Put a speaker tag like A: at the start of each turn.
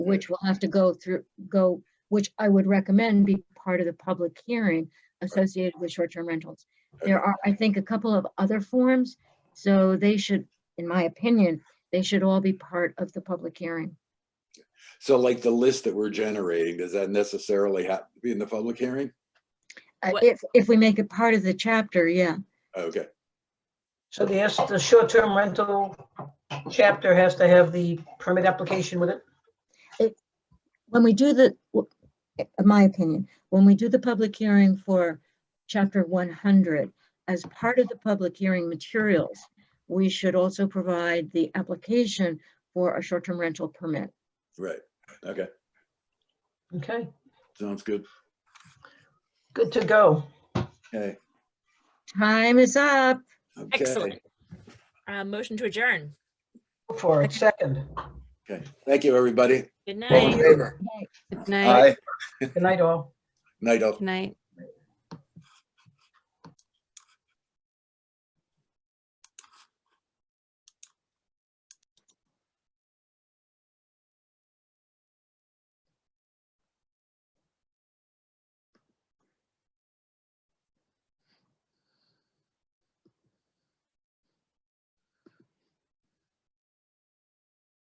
A: which will have to go through, go, which I would recommend be part of the public hearing associated with short-term rentals. There are, I think, a couple of other forms, so they should, in my opinion, they should all be part of the public hearing.
B: So like the list that we're generating, does that necessarily have to be in the public hearing?
A: Uh,
C: What-
A: If, if we make it part of the chapter, yeah.
B: Okay,
D: So the, S- the short-term rental chapter has to have the permit application with it?
A: When we do the, w- in my opinion, when we do the public hearing for chapter one hundred, as part of the public hearing materials, we should also provide the application for a short-term rental permit.
B: right, okay,
D: Okay,
B: sounds good.
D: good to go.
B: Okay.
A: Time is up.
B: okay.
C: Excellent. Uh, motion to adjourn.
D: Go For it, second.
B: Okay, thank you, everybody.
C: Good
B: All in
C: night.
B: favor?
E: Good night.
B: Aye.
D: Good night, all.
B: Night, all.
E: Good night.